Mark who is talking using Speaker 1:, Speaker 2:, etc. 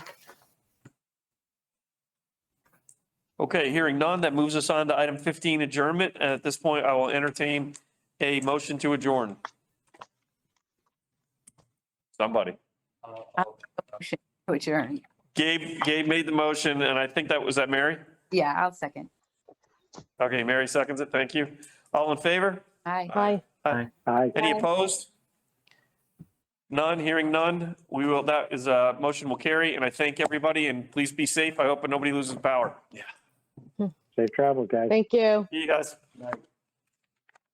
Speaker 1: Okay, hearing none, that moves us on to item 15, adjournment. And at this point, I will entertain a motion to adjourn. Somebody.
Speaker 2: to adjourn.
Speaker 1: Gabe, Gabe made the motion, and I think that, was that Mary?
Speaker 2: Yeah, I'll second.
Speaker 1: Okay, Mary seconds it, thank you. All in favor?
Speaker 2: Aye.
Speaker 3: Aye.
Speaker 4: Aye.
Speaker 1: Any opposed? None, hearing none. We will, that is, uh, motion will carry, and I thank everybody, and please be safe. I hope nobody loses power. Yeah.
Speaker 4: Safe travel, guys.
Speaker 3: Thank you.
Speaker 1: See you guys.